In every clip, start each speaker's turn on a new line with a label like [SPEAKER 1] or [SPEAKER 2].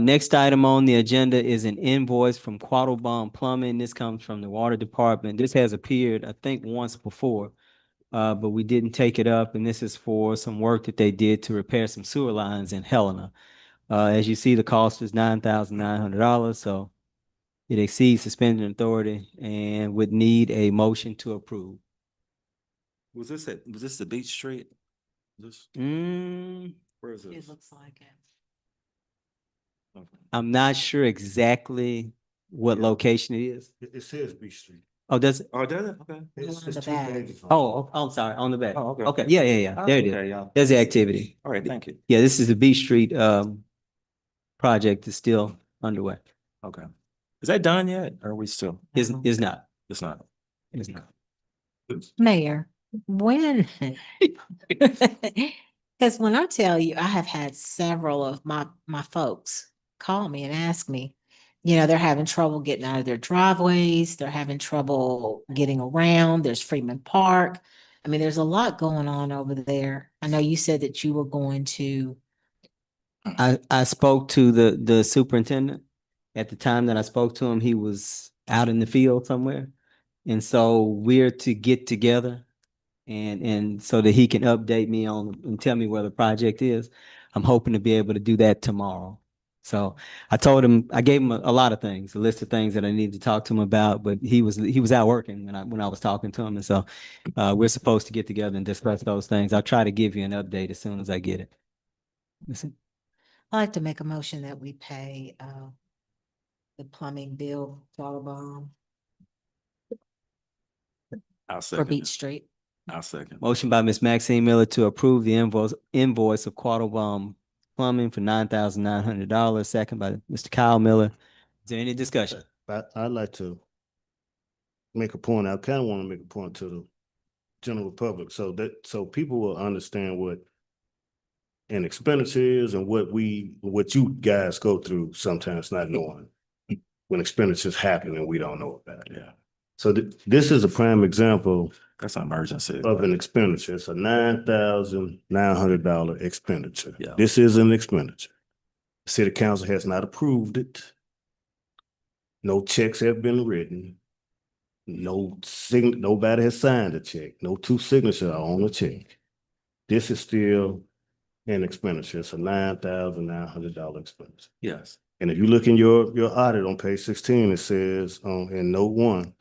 [SPEAKER 1] Next item on the agenda is an invoice from Quattlebaum Plumbing. This comes from the Water Department. This has appeared, I think, once before. Uh, but we didn't take it up, and this is for some work that they did to repair some sewer lines in Helena. Uh, as you see, the cost is nine thousand nine hundred dollars, so it exceeds the spending authority and would need a motion to approve.
[SPEAKER 2] Was this at, was this the Beach Street? This,
[SPEAKER 1] Mm,
[SPEAKER 2] where is this? Oh,
[SPEAKER 3] looks like it.
[SPEAKER 2] Okay.
[SPEAKER 1] I'm not sure exactly what
[SPEAKER 4] Yeah.
[SPEAKER 1] location it is.
[SPEAKER 4] It, it says Beach Street.
[SPEAKER 1] Oh, does,
[SPEAKER 2] Oh, did it? Okay.
[SPEAKER 4] It's,
[SPEAKER 3] on
[SPEAKER 4] it's
[SPEAKER 3] the
[SPEAKER 4] two
[SPEAKER 3] back.
[SPEAKER 4] pages. long.
[SPEAKER 1] oh, oh, I'm sorry, on the back.
[SPEAKER 2] Oh, okay.
[SPEAKER 1] Okay, yeah, yeah, yeah, there it is.
[SPEAKER 2] Okay, yeah.
[SPEAKER 1] There's the activity.
[SPEAKER 2] All right, thank you.
[SPEAKER 1] Yeah, this is the Beach Street, um, project is still underway.
[SPEAKER 2] Okay. Is that done yet? Or are we still?
[SPEAKER 1] Is, is not,
[SPEAKER 2] It's not.
[SPEAKER 1] is not.
[SPEAKER 3] Mayor, when? Because when I tell you, I have had several of my, my folks call me and ask me, you know, they're having trouble getting out of their driveways, they're having trouble getting around, there's Freeman Park. I mean, there's a lot going on over there. I know you said that you were going to,
[SPEAKER 1] I, I spoke to the, the superintendent. At the time that I spoke to him, he was out in the field somewhere. And so we're to get together and, and so that he can update me on and tell me where the project is. I'm hoping to be able to do that tomorrow. So I told him, I gave him a, a lot of things, a list of things that I needed to talk to him about, but he was, he was out working when I, when I was talking to him. And so, uh, we're supposed to get together and discuss those things. I'll try to give you an update as soon as I get it. That's it.
[SPEAKER 3] I'd like to make a motion that we pay, uh, the plumbing bill, Qualabong,
[SPEAKER 2] I'll
[SPEAKER 3] for
[SPEAKER 2] second.
[SPEAKER 3] Beach
[SPEAKER 2] it.
[SPEAKER 3] Street.
[SPEAKER 2] I'll second.
[SPEAKER 1] Motion by Ms. Maxine Miller to approve the invoice, invoice of Quattlebaum Plumbing for nine thousand nine hundred dollars, second by Mr. Kyle Miller. Is there any discussion?
[SPEAKER 4] But I'd like to make a point. I kind of want to make a point to the general public so that, so people will understand what an expenditure is and what we, what you guys go through sometimes not knowing when expenditures happen and we don't know about it.
[SPEAKER 2] Yeah,
[SPEAKER 4] So th- this is a prime example
[SPEAKER 2] that's an emergency.
[SPEAKER 4] of an expenditure. It's a nine thousand nine hundred dollar expenditure.
[SPEAKER 2] Yeah.
[SPEAKER 4] This is an expenditure. City council has not approved it. No checks have been written. No sign, nobody has signed a check. No two signatures are on the check. This is still an expenditure. It's a nine thousand nine hundred dollar expenditure.
[SPEAKER 2] Yes.
[SPEAKER 4] And if you look in your, your audit on page sixteen, it says, um, in note one,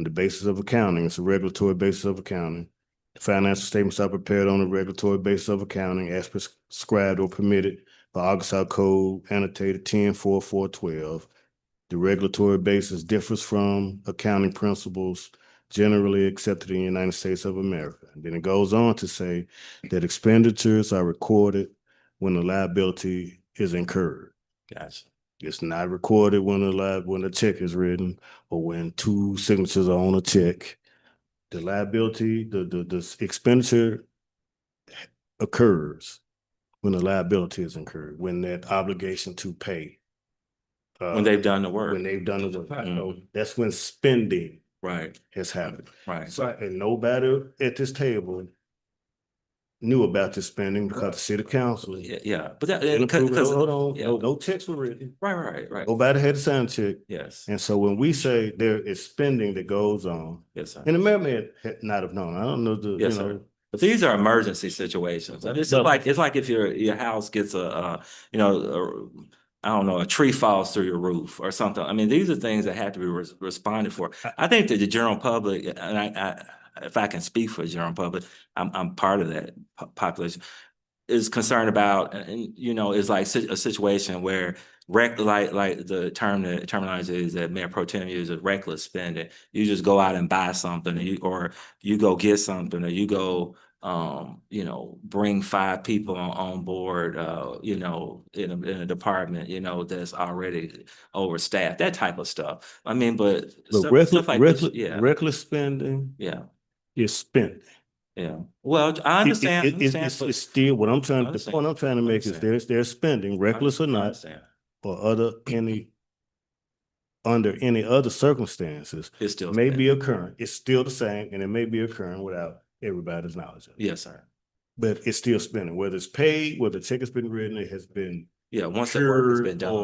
[SPEAKER 4] on the basis of accounting, it's a regulatory basis of accounting. The Financial statements are prepared on a regulatory basis of accounting as prescribed or permitted by Arkansas Code annotated ten four four twelve. The regulatory basis differs from accounting principles generally accepted in the United States of America. And then it goes on to say that expenditures are recorded when the liability is incurred.
[SPEAKER 2] Gotcha.
[SPEAKER 4] It's not recorded when a li- when a check is written or when two signatures are on a check. The liability, the the the s- expenditure occurs when the liability is incurred, when that obligation to pay. uh,
[SPEAKER 2] When they've done the work.
[SPEAKER 4] When they've done the work.
[SPEAKER 2] Right.
[SPEAKER 4] So That's when spending
[SPEAKER 2] Right,
[SPEAKER 4] has happened.
[SPEAKER 2] right.
[SPEAKER 4] So, and nobody at this table knew about this spending because the city council.
[SPEAKER 2] Yeah, yeah, but that,
[SPEAKER 4] didn't
[SPEAKER 2] because,
[SPEAKER 4] approve it.
[SPEAKER 2] because,
[SPEAKER 4] Hold on,
[SPEAKER 2] yeah.
[SPEAKER 4] no- no checks were written.
[SPEAKER 2] right, right, right.
[SPEAKER 4] Nobody had a sign check.
[SPEAKER 2] Yes,
[SPEAKER 4] And so when we say there is spending that goes on,
[SPEAKER 2] yes, sir.
[SPEAKER 4] and the mayor may had not have known, I don't know the, you
[SPEAKER 2] Yes, sir.
[SPEAKER 4] know.
[SPEAKER 2] But these are emergency situations. And it's
[SPEAKER 4] No.
[SPEAKER 2] like, it's like if your, your house gets a, uh, you know, I I don't know, a tree falls through your roof or something. I mean, these are things that have to be res- responded for. I think that the general public, and I, I, if I can speak for the general public, I'm, I'm part of that po- population, is concerned about, and- and, you know, is like si- a situation where rec, like, like the term, that terminology is that Mayor Pro Tem uses reckless spending. You just go out and buy something, or you, or you go get something, or you go, um, you know, bring five people on, on board, uh, you know, in a, in a department, you know, that's already overstaffed, that type of stuff. I mean, but
[SPEAKER 4] But
[SPEAKER 2] stuff-
[SPEAKER 4] reckless,
[SPEAKER 2] stuff like this-
[SPEAKER 4] reckless,
[SPEAKER 2] Yeah,
[SPEAKER 4] reckless spending
[SPEAKER 2] yeah,
[SPEAKER 4] is spending.
[SPEAKER 2] yeah. Well, I
[SPEAKER 4] It- it-
[SPEAKER 2] understand,
[SPEAKER 4] it- it's-
[SPEAKER 2] understand,
[SPEAKER 4] It's,
[SPEAKER 2] but-
[SPEAKER 4] it's still, what I'm trying, the
[SPEAKER 2] Understand.
[SPEAKER 4] point I'm trying to make is
[SPEAKER 2] Understand.
[SPEAKER 4] there's, there's spending, reckless or
[SPEAKER 2] I
[SPEAKER 4] not,
[SPEAKER 2] understand.
[SPEAKER 4] or other, any, under any other circumstances,
[SPEAKER 2] It's still.
[SPEAKER 4] may be occurring. It's still the same, and it may be occurring without everybody's knowledge. of it.
[SPEAKER 2] Yes, sir.
[SPEAKER 4] But it's still spending, whether it's paid, whether the check has been written, it has been
[SPEAKER 2] Yeah, once that work has
[SPEAKER 4] Sure,
[SPEAKER 2] been done.
[SPEAKER 4] or-